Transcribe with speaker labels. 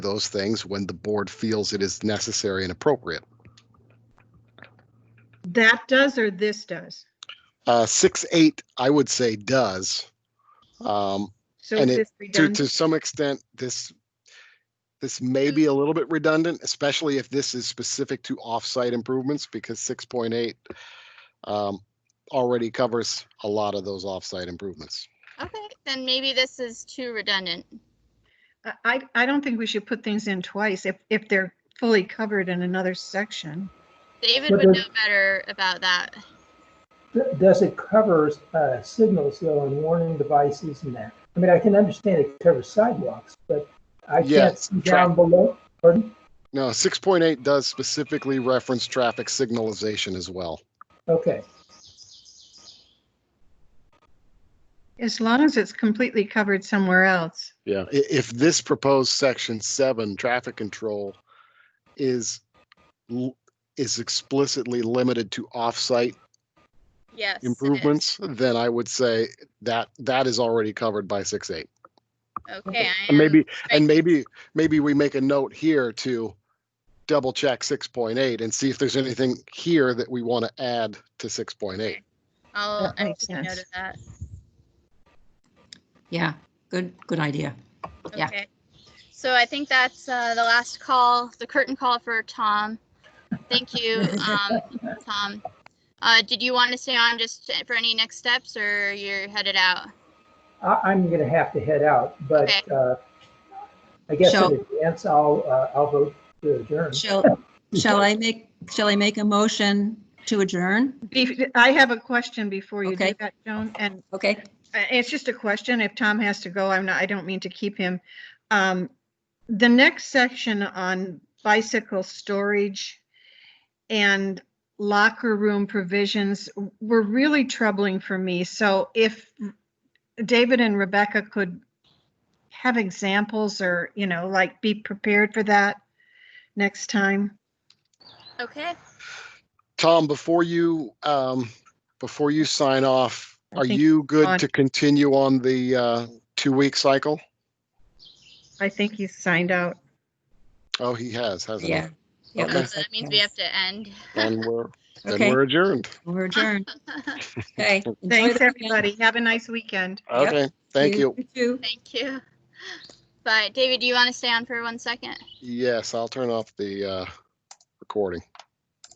Speaker 1: those things when the board feels it is necessary and appropriate.
Speaker 2: That does or this does?
Speaker 1: Uh, six, eight, I would say does. Um,
Speaker 2: So
Speaker 1: And
Speaker 2: is
Speaker 1: it-
Speaker 2: this
Speaker 1: to,
Speaker 2: redundant?
Speaker 1: to some extent, this, this may be a little bit redundant, especially if this is specific to off-site improvements, because six point eight um, already covers a lot of those off-site improvements.
Speaker 3: Okay, then maybe this is too redundant.
Speaker 2: I- I, I don't think we should put things in twice if, if they're fully covered in another section.
Speaker 3: David
Speaker 4: But
Speaker 3: would know
Speaker 4: there's-
Speaker 3: better about that.
Speaker 4: Does it cover uh, signals though and warning devices and that? I mean, I can understand it covers sidewalks, but I can't
Speaker 1: Yes,
Speaker 4: see
Speaker 1: tra-
Speaker 4: down below. Pardon?
Speaker 1: No, six point eight does specifically reference traffic signalization as well.
Speaker 4: Okay,
Speaker 2: As long as it's completely covered somewhere else.
Speaker 1: Yeah. I- if this proposed section seven, traffic control, is l- is explicitly limited to off-site
Speaker 3: Yes. it is.
Speaker 1: improvements, then I would say that that is already covered by six eight.
Speaker 3: Okay, I
Speaker 1: And
Speaker 3: am,
Speaker 1: maybe, and maybe, maybe we make a note here to double check six point eight and see if there's anything here that we want to add to six point eight.
Speaker 3: I'll,
Speaker 2: That
Speaker 3: I'll
Speaker 2: makes
Speaker 3: take note
Speaker 2: sense.
Speaker 3: of that.
Speaker 5: Yeah, good, good idea. Yeah.
Speaker 3: Okay. So I think that's uh, the last call, the curtain call for Tom. Thank you, um, Tom. Uh, did you want to stay on just for any next steps or you're headed out?
Speaker 4: I, I'm gonna have to head out, but
Speaker 3: Okay.
Speaker 4: uh, I guess
Speaker 5: Shall-
Speaker 4: in advance, I'll, uh, I'll vote to adjourn.
Speaker 5: Shall, shall I make, shall I make a motion to adjourn?
Speaker 2: If- I have a question before you do
Speaker 5: Okay.
Speaker 2: that, Joan, and
Speaker 5: Okay,
Speaker 2: uh, it's just a question. If Tom has to go, I'm not, I don't mean to keep him. Um, The next section on bicycle storage and locker room provisions were really troubling for me. So if David and Rebecca could have examples or, you know, like be prepared for that next time.
Speaker 3: Okay.
Speaker 1: Tom, before you, um, before you sign off,
Speaker 2: I
Speaker 1: are
Speaker 2: think
Speaker 1: you
Speaker 2: on.
Speaker 1: good to continue on the, uh, two-week cycle?
Speaker 2: I think he's signed out.
Speaker 1: Oh, he has, hasn't he?
Speaker 5: yeah. Yeah, it
Speaker 1: Okay.
Speaker 5: looks
Speaker 3: Um, So
Speaker 5: like
Speaker 3: that means we have to end.
Speaker 1: And we're, then
Speaker 5: Okay.
Speaker 1: we're adjourned.
Speaker 5: We're adjourned, okay. enjoy
Speaker 2: Thanks,
Speaker 5: the weekend.
Speaker 2: everybody. Have a nice weekend.
Speaker 5: Yep.
Speaker 1: Okay, thank you.
Speaker 5: too.
Speaker 3: Thank you. But David, do you want to stay on for one second?
Speaker 1: Yes, I'll turn off the, uh, recording.